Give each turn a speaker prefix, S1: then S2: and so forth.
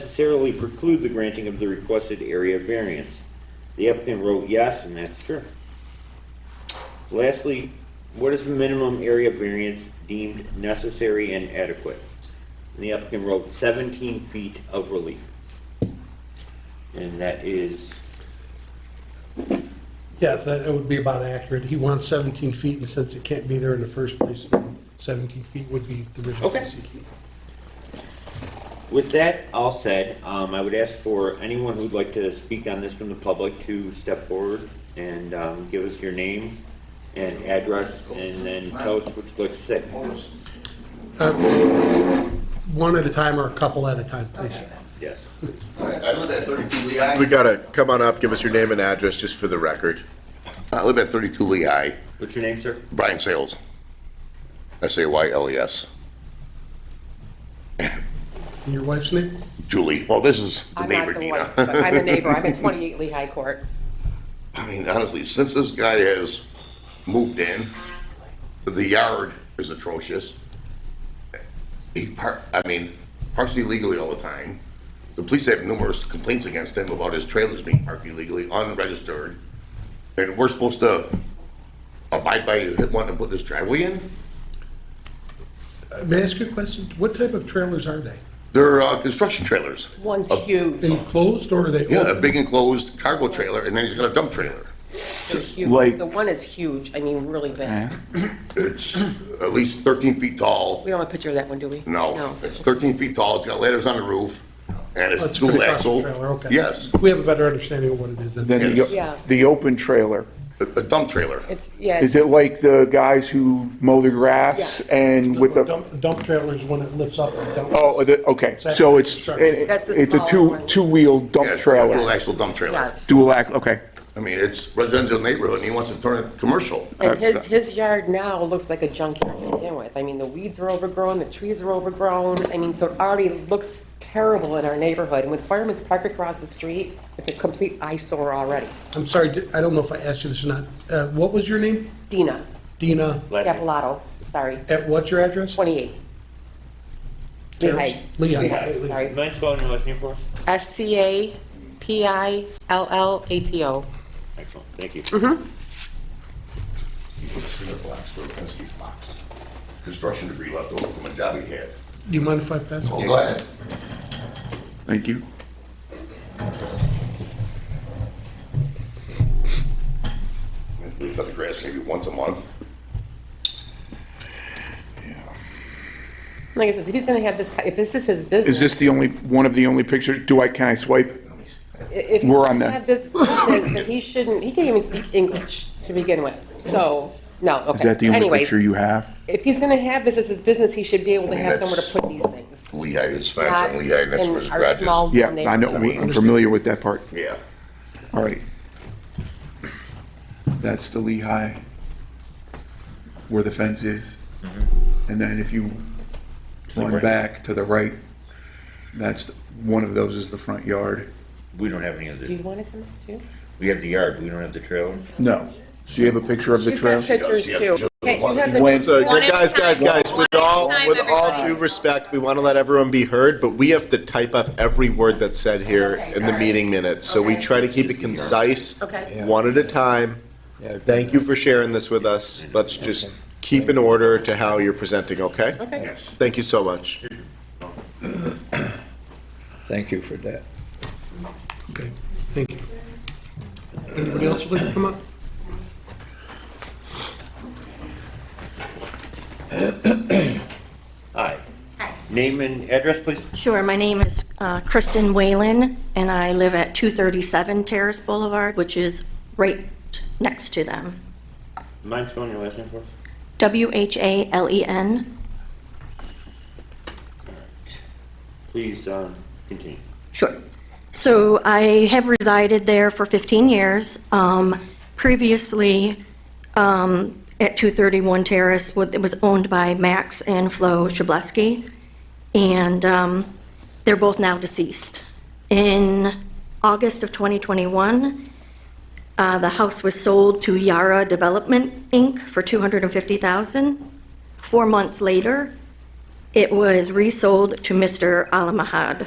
S1: necessarily preclude the granting of the requested area variance. The applicant wrote yes, and that's true. Lastly, what is the minimum area variance deemed necessary and adequate? And the applicant wrote 17 feet of relief. And that is,
S2: Yes, that that would be about accurate. He wants 17 feet, and since it can't be there in the first place, then 17 feet would be the original
S1: Okay.
S2: seeking.
S1: with that all said, um, I would ask for anyone who'd like to speak on this from the public to step forward and um, give us your name and address, and then tell us what you'd like to say.
S2: Um, One at a time or a couple at a time, please.
S1: Yes.
S3: I I live at 32 Lehigh.
S4: We gotta, come on up, give us your name and address, just for the record.
S3: I live at 32 Lehigh.
S1: What's your name, sir?
S3: Brian Sales. S A Y L E S.
S2: And your wife's name?
S3: Julie. Well, this is the
S5: I'm
S3: neighbor,
S5: not the one,
S3: Nina.
S5: but I'm the neighbor, I'm at 28 Lehigh Court.
S3: I mean, honestly, since this guy has moved in, the yard is atrocious. He par, I mean, parks illegally all the time. The police have numerous complaints against him about his trailers being parked illegally, unregistered. And we're supposed to abide by wanting to put this driveway in?
S2: Uh, May I ask you a question? What type of trailers are they?
S3: They're uh, construction trailers.
S5: One's huge,
S2: Enclosed or are they
S3: Yeah, a
S2: open?
S3: big enclosed cargo trailer, and then he's got a dump trailer.
S5: they're huge,
S6: like-
S5: the one is huge, I mean, really big.
S3: It's at least 13 feet tall.
S5: We don't have a picture of that one, do we?
S3: No, it's 13 feet tall. It's got ladders on the roof, and
S2: Oh,
S3: it's
S2: a
S3: dual
S2: pretty
S3: axle.
S2: powerful trailer, okay.
S3: Yes,
S2: We have a better understanding of what it is
S6: Then
S2: than,
S3: Yes.
S5: Yeah.
S6: the, the open trailer,
S3: a a dump trailer.
S5: It's, yeah,
S6: is it like the guys who mow the
S5: Yes.
S6: grass and with the,
S2: dump dump trailer is one that lifts up and dumps.
S6: oh, the, okay,
S2: That's
S6: so it's,
S2: construction.
S6: it-
S5: That's the
S6: it's a
S5: smaller
S6: two,
S5: one.
S6: two-wheel dump
S3: Yeah, it's a Dual
S6: trailer.
S3: axle dump trailer.
S5: yes.
S6: Dual act, okay.
S3: I mean, it's residential neighborhood, and he wants to turn it commercial.
S5: And his, his yard now looks like a junkyard to begin with. I mean, the weeds are overgrown, the trees are overgrown. I mean, so it already looks terrible in our neighborhood. And with Fireman's Park across the street, it's a complete eyesore already.
S2: I'm sorry, di- I don't know if I asked you this or not. Uh, What was your name?
S5: Dina
S2: Dina,
S1: Last name?
S5: Capolato, sorry,
S2: at what's your address?
S5: 28. Lehigh.
S2: Lehigh.
S5: Sorry.
S1: Mind spelling your last name for us?
S5: S C A P I L L A T O.
S1: Excellent, thank you.
S3: Construction debris left over from a job he had.
S2: Do you mind if I pass?
S3: Well, Oh, go ahead.
S6: Thank you.
S3: We cut the grass maybe once a month.
S5: Like I said, if he's gonna have this, if this is his business.
S6: Is this the only, one of the only pictures? Do I, can I swipe?
S5: If he
S6: We're
S5: doesn't
S6: on the-
S5: have this business, then he shouldn't, he can't even speak English to begin with, so, no, okay.
S6: Is that the only
S5: Anyways,
S6: picture you Oh, have?
S5: If he's gonna have this as his business, he should be able to
S3: mean,
S5: have somewhere
S3: that's-
S5: to put these things.
S3: Lehigh, his fence
S5: Not
S3: on Lehigh, and that's
S5: in
S3: where his
S5: our
S3: garage
S5: small
S3: is.
S6: Yeah,
S5: little
S6: I know,
S5: neighborhood.
S6: we- I'm familiar with that part.
S3: Yeah.
S6: All right. That's the Lehigh, where the fence is. And then if you run back Mm-hmm. to the right, that's, one of those is the front yard.
S1: We don't have any of
S5: Do you
S1: this.
S5: wanna come up too?
S1: We have the yard, we don't have the trailers.
S6: No. Do you have a picture of the
S5: She's got
S6: trail?
S3: Yes,
S5: pictures
S3: yes,
S5: too.
S3: just
S5: Okay, you
S3: one.
S5: have the-
S6: When-
S4: So,
S7: One at a
S4: guys, guys,
S7: time.
S4: guys,
S7: One
S4: with
S7: at a
S4: all,
S7: time,
S4: with all
S7: everybody.
S4: due respect, we want to let everyone be heard, but we have to type up every word that's said here in the meeting minutes. So we
S5: Okay.
S4: try to keep it concise,
S5: Okay.
S4: one at a time. Thank you for sharing this with us. Let's just keep in order to how you're presenting, okay?
S5: Okay.
S4: Thank you so much.
S7: Thank you for that.
S2: Okay, thank you. Anybody else would like to come up?
S1: Hi. Name and address, please?
S8: Sure, my name is uh, Kristen Whalen, and I live at 237 Terrace Boulevard, which is right next to them.
S1: Mind spelling your last name for us?
S8: E W-H-A-L-E-N.
S1: Please, um, continue.
S8: Sure. So I have resided there for 15 years. Um, Previously, um, at 231 Terrace, what- it was owned by Max and Flo Shableski, and um, they're both now deceased. In August of 2021, Uh, The house was sold to Yara Development, Inc. for $250,000. Four months later, it was resold to Mr. Alamahad